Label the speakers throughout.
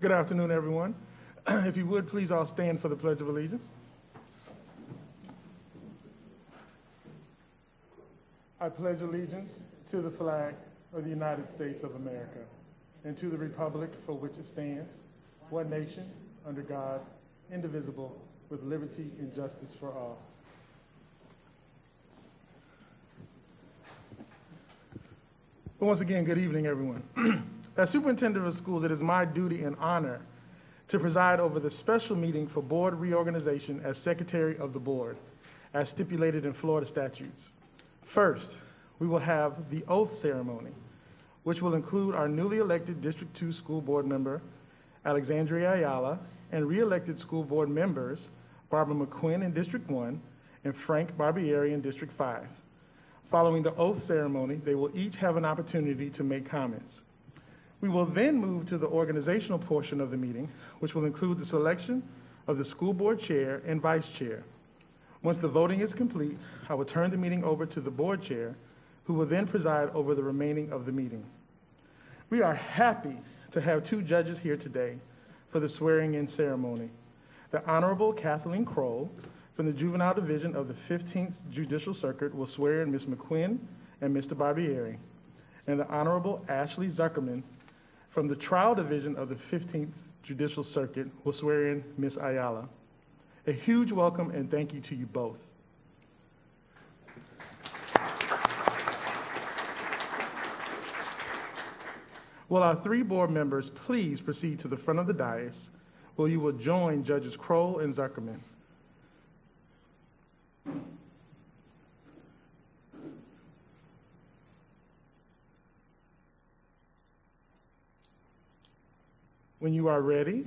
Speaker 1: Good afternoon, everyone. If you would, please all stand for the Pledge of Allegiance. I pledge allegiance to the flag of the United States of America and to the republic for which it stands, one nation, under God, indivisible, with liberty and justice for all. But once again, good evening, everyone. As superintendent of schools, it is my duty and honor to preside over the special meeting for board reorganization as secretary of the board, as stipulated in Florida statutes. First, we will have the oath ceremony, which will include our newly elected District 2 school board member, Alexandria Ayala, and re-elected school board members, Barbara McQuinn in District 1 and Frank Barbieri in District 5. Following the oath ceremony, they will each have an opportunity to make comments. We will then move to the organizational portion of the meeting, which will include the selection of the school board chair and vice chair. Once the voting is complete, I will turn the meeting over to the board chair, who will then preside over the remaining of the meeting. We are happy to have two judges here today for the swearing-in ceremony. The Honorable Kathleen Kroll from the Juvenile Division of the 15th Judicial Circuit will swear in Ms. McQuinn and Mr. Barbieri, and the Honorable Ashley Zuckerman from the Trial Division of the 15th Judicial Circuit will swear in Ms. Ayala. A huge welcome and thank you to you both. Will our three board members please proceed to the front of the dais where you will join Judges Kroll and Zuckerman? When you are ready,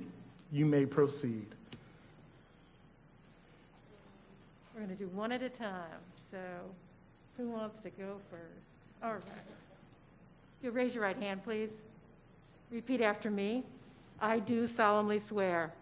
Speaker 1: you may proceed.
Speaker 2: We're going to do one at a time, so who wants to go first? All right. You raise your right hand, please. Repeat after me. I do solemnly swear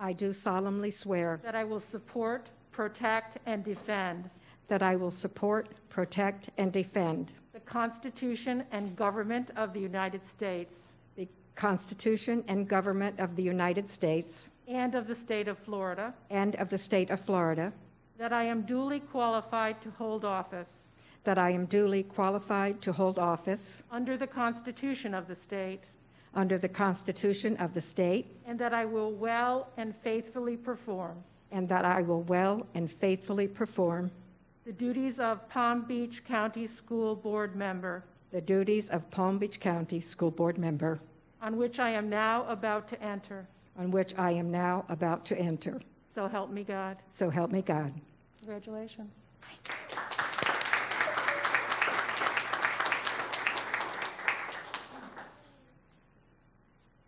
Speaker 3: I do solemnly swear
Speaker 2: that I will support, protect, and defend
Speaker 3: that I will support, protect, and defend
Speaker 2: the Constitution and government of the United States
Speaker 3: the Constitution and government of the United States
Speaker 2: and of the state of Florida,
Speaker 3: and of the state of Florida,
Speaker 2: that I am duly qualified to hold office
Speaker 3: that I am duly qualified to hold office
Speaker 2: under the Constitution of the state,
Speaker 3: under the Constitution of the state,
Speaker 2: and that I will well and faithfully perform
Speaker 3: and that I will well and faithfully perform
Speaker 2: the duties of Palm Beach County School Board member
Speaker 3: the duties of Palm Beach County School Board member,
Speaker 2: on which I am now about to enter.
Speaker 3: on which I am now about to enter.
Speaker 2: So help me God.
Speaker 3: So help me God.
Speaker 2: Congratulations.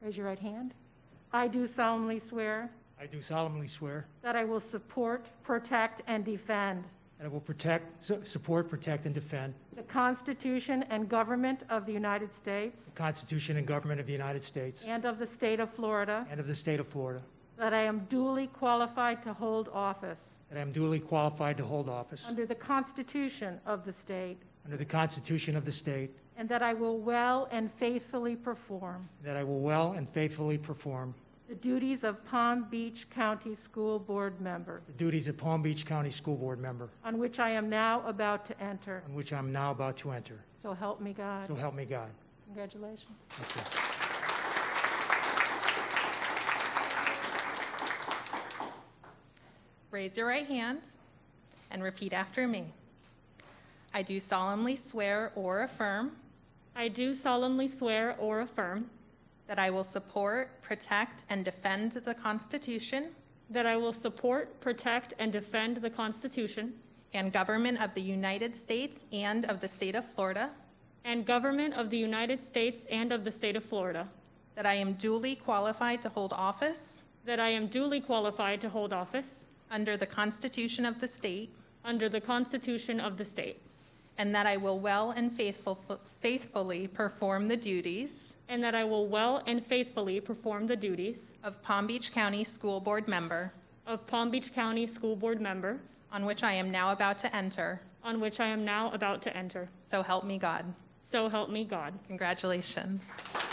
Speaker 2: Raise your right hand. I do solemnly swear
Speaker 4: I do solemnly swear
Speaker 2: that I will support, protect, and defend
Speaker 4: that I will protect, su- support, protect, and defend
Speaker 2: the Constitution and government of the United States
Speaker 4: the Constitution and government of the United States
Speaker 2: and of the state of Florida,
Speaker 4: and of the state of Florida,
Speaker 2: that I am duly qualified to hold office
Speaker 4: that I am duly qualified to hold office
Speaker 2: under the Constitution of the state,
Speaker 4: under the Constitution of the state,
Speaker 2: and that I will well and faithfully perform
Speaker 4: that I will well and faithfully perform
Speaker 2: The duties of Palm Beach County School Board member,
Speaker 4: the duties of Palm Beach County School Board member,
Speaker 2: on which I am now about to enter.
Speaker 4: on which I am now about to enter.
Speaker 2: So help me God.
Speaker 4: So help me God.
Speaker 2: Congratulations.
Speaker 4: Thank you.
Speaker 5: Raise your right hand and repeat after me. I do solemnly swear or affirm
Speaker 6: I do solemnly swear or affirm
Speaker 5: that I will support, protect, and defend the Constitution
Speaker 6: that I will support, protect, and defend the Constitution
Speaker 5: and government of the United States and of the state of Florida,
Speaker 6: and government of the United States and of the state of Florida,
Speaker 5: that I am duly qualified to hold office
Speaker 6: that I am duly qualified to hold office
Speaker 5: under the Constitution of the state,
Speaker 6: under the Constitution of the state,
Speaker 5: and that I will well and faithful, faithfully perform the duties
Speaker 6: and that I will well and faithfully perform the duties
Speaker 5: of Palm Beach County School Board member,
Speaker 6: of Palm Beach County School Board member,
Speaker 5: on which I am now about to enter.
Speaker 6: on which I am now about to enter.
Speaker 5: So help me God.
Speaker 6: So help me God.
Speaker 5: Congratulations.